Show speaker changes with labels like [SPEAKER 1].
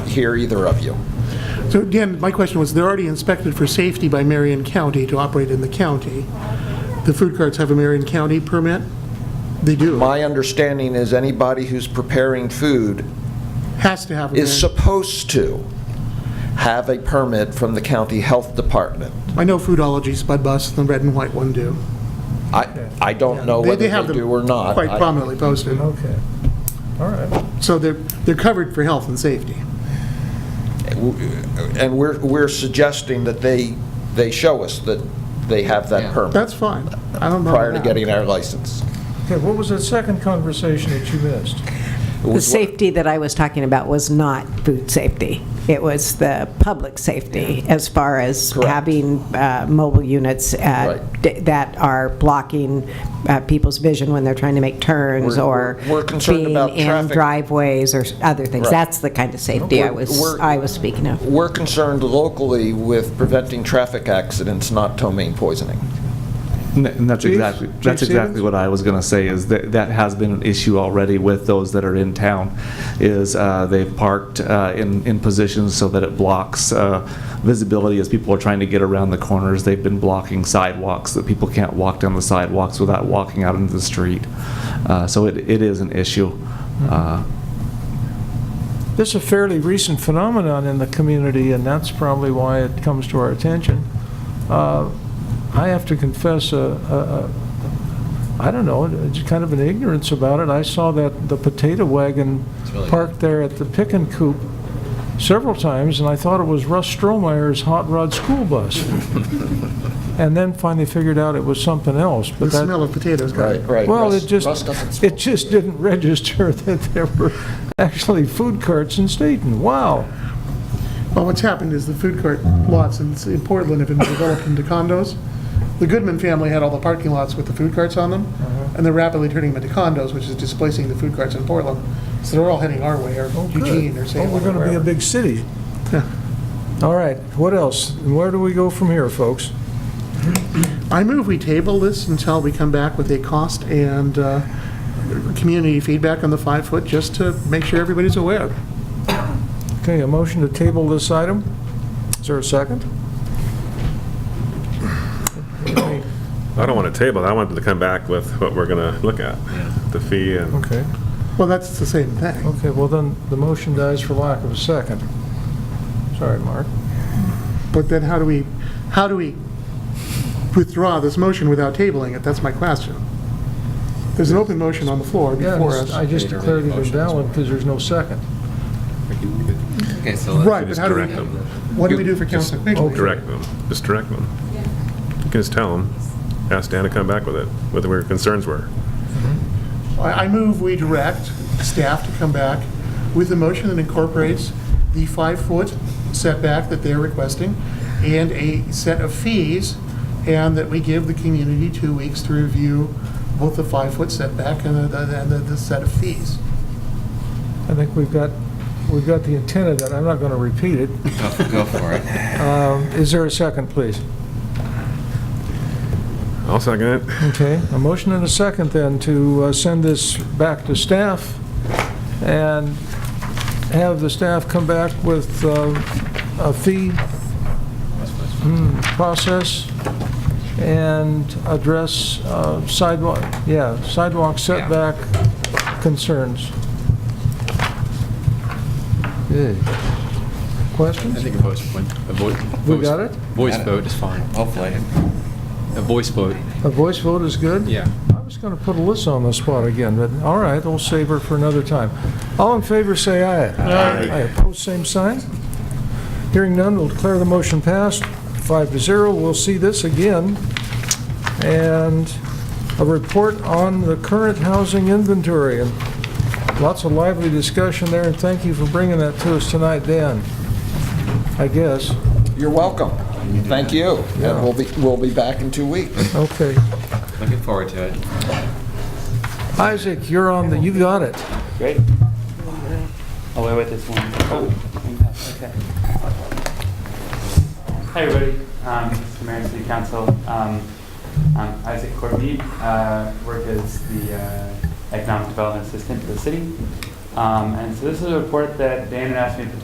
[SPEAKER 1] here, either of you.
[SPEAKER 2] So again, my question was, they're already inspected for safety by Marion County to operate in the county. The food carts have a Marion County permit? They do.
[SPEAKER 1] My understanding is anybody who's preparing food
[SPEAKER 2] Has to have a
[SPEAKER 1] is
[SPEAKER 2] Marion.
[SPEAKER 1] supposed to have a permit from the county health department.
[SPEAKER 2] I know Foodology, Spud Bus, the red and white one do.
[SPEAKER 1] I, I don't know Oh, whether
[SPEAKER 2] have
[SPEAKER 1] they
[SPEAKER 2] them
[SPEAKER 1] do or not.
[SPEAKER 2] Quite
[SPEAKER 1] I-
[SPEAKER 2] prominently posted.
[SPEAKER 3] Okay, all right.
[SPEAKER 2] So they're, they're covered for health and safety.
[SPEAKER 1] And we're, we're suggesting that they, they show us that they have that permit
[SPEAKER 2] That's fine. I don't know.
[SPEAKER 1] prior to getting our license.
[SPEAKER 3] Okay, what was that second conversation that you missed?
[SPEAKER 1] It
[SPEAKER 4] The
[SPEAKER 1] was what-
[SPEAKER 4] safety that I was talking about was not food safety. It was the public safety as far as
[SPEAKER 1] Correct.
[SPEAKER 4] having uh, mobile units uh,
[SPEAKER 1] Right.
[SPEAKER 4] d- that are blocking uh, people's vision when they're trying to make turns
[SPEAKER 1] We're-
[SPEAKER 4] or
[SPEAKER 1] we're- we're concerned
[SPEAKER 4] being
[SPEAKER 1] about
[SPEAKER 4] in
[SPEAKER 1] traffic.
[SPEAKER 4] driveways or s- other things.
[SPEAKER 1] Right.
[SPEAKER 4] That's the kind of safety I
[SPEAKER 1] We're-
[SPEAKER 4] was,
[SPEAKER 1] we're-
[SPEAKER 4] I was speaking of.
[SPEAKER 1] We're concerned locally with preventing traffic accidents, not ptomaine poisoning.
[SPEAKER 5] N- And that's
[SPEAKER 3] Chief?
[SPEAKER 5] exactly,
[SPEAKER 3] Chief
[SPEAKER 5] that's exactly
[SPEAKER 3] Stevens?
[SPEAKER 5] what I was going to say, is that, that has been an issue already with those that are in town, is uh, they've parked uh, in, in positions so that it blocks uh, visibility as people are trying to get around the corners. They've been blocking sidewalks, that people can't walk down the sidewalks without walking out into the street. Uh, So it, it is an issue. Uh,
[SPEAKER 3] This is a fairly recent phenomenon in the community, and that's probably why it comes to our attention. Uh, I have to confess, uh, uh, uh, I don't know, it's kind of an ignorance about it. I saw that, the potato wagon parked there at the Pick and Coop several times, and I thought it was Russ Strohmeyer's hot rod school bus. And then finally figured out it was something else,
[SPEAKER 2] The
[SPEAKER 3] but that...
[SPEAKER 2] smell of potatoes got it.
[SPEAKER 1] right.
[SPEAKER 3] Well,
[SPEAKER 1] Russ-
[SPEAKER 3] it just,
[SPEAKER 1] Russ doesn't smoke.
[SPEAKER 3] it just didn't register that there were actually food carts in Staten. Wow.
[SPEAKER 2] Well, what's happened is the food court lots in in Portland have been developed into condos. The Goodman family had all the parking lots with the food carts on them,
[SPEAKER 3] Uh-huh.
[SPEAKER 2] and they're rapidly turning them into condos, which is displacing the food carts in Portland. So they're all heading our way, or
[SPEAKER 3] Oh, good.
[SPEAKER 2] Eugene, or
[SPEAKER 3] Oh,
[SPEAKER 2] Salem.
[SPEAKER 3] We're
[SPEAKER 2] or
[SPEAKER 3] going to be a
[SPEAKER 2] wherever.
[SPEAKER 3] big city.
[SPEAKER 2] Yeah.
[SPEAKER 3] All right, what else? And Where do we go from here, folks?
[SPEAKER 2] I move we table this until we come back with a cost and uh, community feedback on the five-foot, just to make sure everybody's aware.
[SPEAKER 3] Okay, a motion to table this item. Is there a second?
[SPEAKER 6] I don't want to table, it. I want them to come back with what we're going to look at, the fee and,
[SPEAKER 3] Okay,
[SPEAKER 2] Well, that's the same thing.
[SPEAKER 3] okay, well then, the motion dies for lack of a second. Sorry, Mark.
[SPEAKER 2] But then how do we, how do we withdraw this motion without tabling it? That's my question. There's an open motion on the floor
[SPEAKER 3] Yeah,
[SPEAKER 2] before
[SPEAKER 3] I
[SPEAKER 2] us.
[SPEAKER 3] just- I just declared it invalid because there's no second.
[SPEAKER 7] Okay, so
[SPEAKER 2] Right, but
[SPEAKER 6] just
[SPEAKER 2] how do we,
[SPEAKER 6] direct them,
[SPEAKER 2] what do we do for Council Quigley?
[SPEAKER 6] direct them, just direct them. You can just tell them, ask Dan to come back with it, what their concerns were.
[SPEAKER 2] I I move we direct staff to come back with a motion that incorporates the five-foot setback that they're requesting and a set of fees, and that we give the community two weeks to review both the five-foot setback and the- the, and the, the set of fees.
[SPEAKER 3] I think we've got, we've got the intent of that, I'm not going to repeat it.
[SPEAKER 7] go go for it.
[SPEAKER 3] Um, Is there a second, please?
[SPEAKER 6] I'll second it.
[SPEAKER 3] Okay, a motion and a second then to uh, send this back to staff and have the staff come back with uh, a fee hmm, process and address uh, sidewalk, yeah, sidewalk setback concerns. Yeah.
[SPEAKER 8] I
[SPEAKER 3] Questions?
[SPEAKER 8] think a voice, a voice.
[SPEAKER 3] We got it?
[SPEAKER 8] Voice vote is fine.
[SPEAKER 7] Hopefully.
[SPEAKER 8] A voice vote.
[SPEAKER 3] A voice vote is good?
[SPEAKER 8] Yeah.
[SPEAKER 3] I was going to put Alyssa on the spot again, but all right, we'll save her for another time. All in favor, say aye. Aye. Opposed, same sign. Hearing none, we'll declare the motion passed, five to zero. We'll see this again. And a report on the current housing inventory. And Lots of lively discussion there, and thank you for bringing that to us tonight, Dan, I guess.
[SPEAKER 1] You're welcome. Thank you. And we'll be, we'll be back in two weeks.
[SPEAKER 3] Okay.
[SPEAKER 7] Looking forward to it.
[SPEAKER 3] Isaac, you're on the, you got it.
[SPEAKER 9] Great. Oh, wait, wait, this one. Oh, okay. Hi, everybody. Um, Mr. Mayor and City Council. Um, I'm Isaac Courtney. Uh, work as the uh, Economic Development Assistant for the city. Um, and so this is a report that Dan had asked me to put